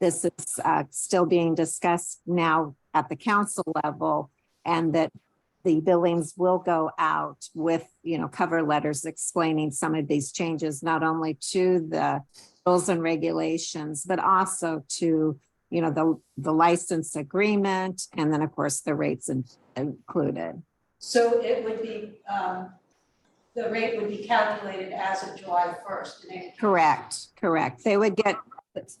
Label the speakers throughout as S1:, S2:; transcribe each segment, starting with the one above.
S1: this is uh, still being discussed now at the council level and that the billings will go out with, you know, cover letters explaining some of these changes, not only to the rules and regulations, but also to, you know, the, the license agreement and then, of course, the rates in- included.
S2: So it would be, um, the rate would be calculated as of July first.
S1: Correct, correct. They would get,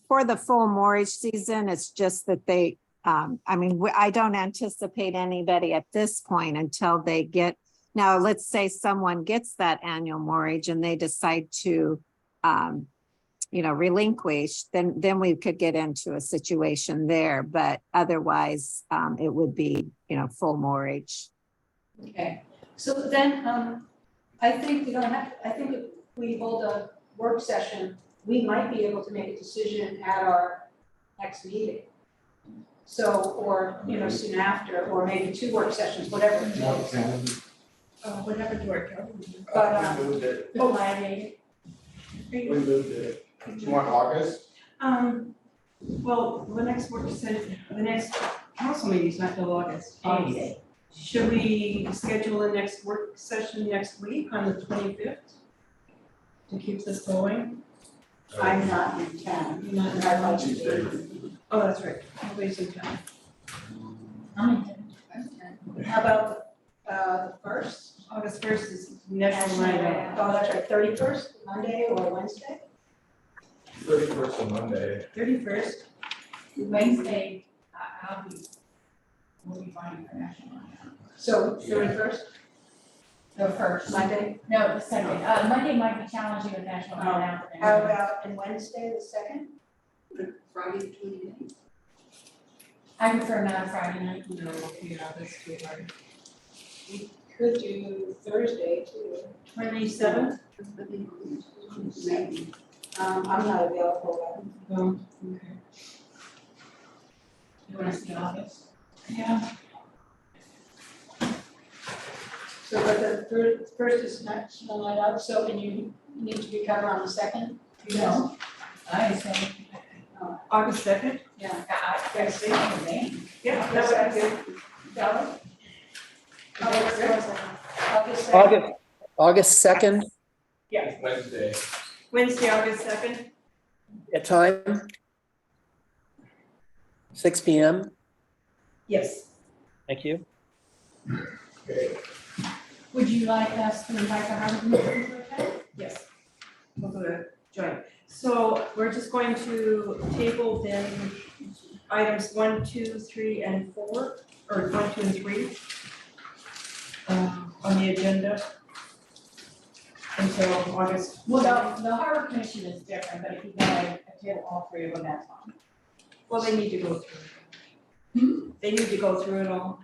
S1: for the full mortgage season, it's just that they, um, I mean, we- I don't anticipate anybody at this point until they get, now, let's say someone gets that annual mortgage and they decide to, um, you know, relinquish, then, then we could get into a situation there, but otherwise, um, it would be, you know, full mortgage.
S2: Okay, so then, um, I think we don't have, I think if we hold a work session, we might be able to make a decision at our next meeting. So, or, you know, soon after, or maybe two work sessions, whatever. it
S3: No,
S2: takes.
S3: can
S4: Uh, whatever to work out.
S2: But,
S3: Uh, we moved it,
S2: Oh, my, name.
S3: we moved it, do you want August?
S4: Um, well, the next work session, the next council meeting's not till August.
S2: August.
S4: Should we schedule a next work session next week on the twenty-fifth? To keep this going?
S2: I'm not in town.
S4: You're not in
S2: I'd like to be.
S4: Oh, that's right, nobody's in town.
S2: How about, uh, the first?
S4: August first is National
S2: National
S4: Night
S2: Night Out.
S4: Out.
S2: Oh, that's right, thirty-first, Monday or Wednesday?
S3: Thirty first of Monday,
S4: Thirty-first,
S5: Wednesday,
S2: uh,
S5: I- I'll be, we'll be fine for National Night Out.
S2: So thirty-first,
S5: The first,
S2: Monday,
S5: no, the second, uh, Monday might be challenging with National Night Out. and-
S2: how about, and Wednesday, the second?
S6: Friday, twenty-ninth.
S5: I prefer not Friday night.
S4: no, yeah, that's too hard.
S2: Could do Thursday too.
S4: Twenty-seventh,
S2: Um, I'm not available,
S4: oh, okay.
S5: You want us to be in August?
S4: Yeah,
S2: but, so but the thir- first is National Night Out, so and you need to be covered on the second?
S5: No. I say,
S4: August second?
S2: Yeah.
S5: I, I, I say, anything.
S4: Yeah, that would be good.
S2: Valid? August second. August second.
S7: August, August second
S3: Wednesday,
S4: Wednesday, August second,
S7: at time? Six P M,
S4: yes.
S7: thank you.
S3: okay,
S5: would you like us to invite the Harvard Movement to attend?
S4: Yes. We'll go to joint. So we're just going to table then items one, two, three, and four, or one, two, and three um, on the agenda until August.
S5: Well, the, the Harbor Commission is different, but if you want to table all three of them, that's fine.
S4: Well, they need to go
S5: Hmm?
S4: through. They need to go through it all.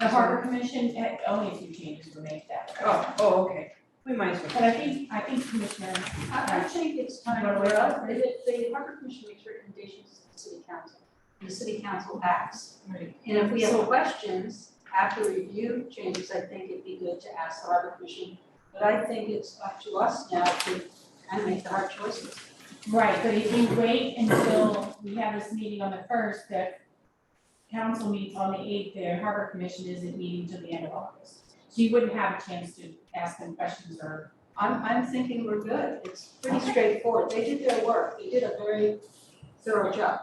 S5: The Harbor Commission, eh, only a few changes were made to that.
S4: Oh, oh, okay. We might as well.
S5: But I think, I think Commissioner,
S6: I, I think it's time,
S5: Right.
S6: well, the, the harbor commission makes recommendations to the city council, and the city council acts.
S5: Right.
S6: And if we have questions after review changes, I think it'd be good to ask the harbor commission, but I think it's up to us now to kind of make the hard choices.
S5: Right, but if we wait until we have this meeting on the first, the council meets on the eighth, the harbor commission isn't meeting till the end of August. So you wouldn't have a chance to ask them questions or,
S6: I'm, I'm thinking we're good, it's pretty straightforward, they did their work, they did a very thorough job.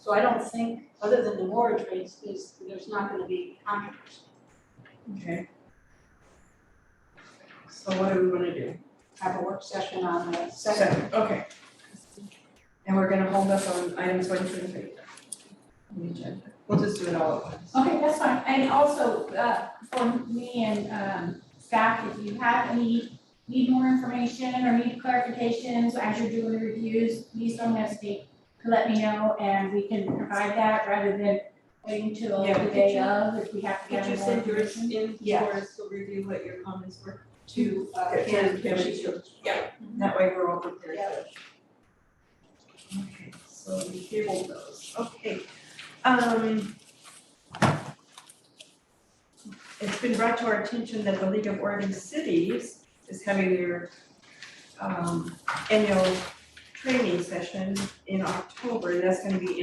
S6: So I don't think, other than the mortgage rates, there's, there's not gonna be controversy.
S4: Okay. So what do we want to do?
S6: have a work session on the second.
S4: Second, okay. And we're gonna hold up on items one, two, and three. On the agenda. We'll just do it all at once.
S5: okay, that's fine. And also, uh, for me and, um, staff, if you have any, need more information or need clarifications as you're doing the reviews, please don't hesitate to let me know and we can provide that rather than waiting till
S4: Yeah,
S5: the
S4: could
S5: day
S4: you-
S5: of if we have to
S4: Could
S5: get
S4: you
S5: more.
S4: send yours in
S5: Yeah.
S4: for us to review what your comments were?
S6: To, uh,
S4: Okay,
S6: Karen,
S4: Karen,
S6: Kim's-
S4: sure. That way we're all prepared.
S6: Yeah.
S4: Okay, so we tabled those, okay. Um. It's been brought to our attention that the League of Oregon Cities is having their um annual training session in October, and that's gonna be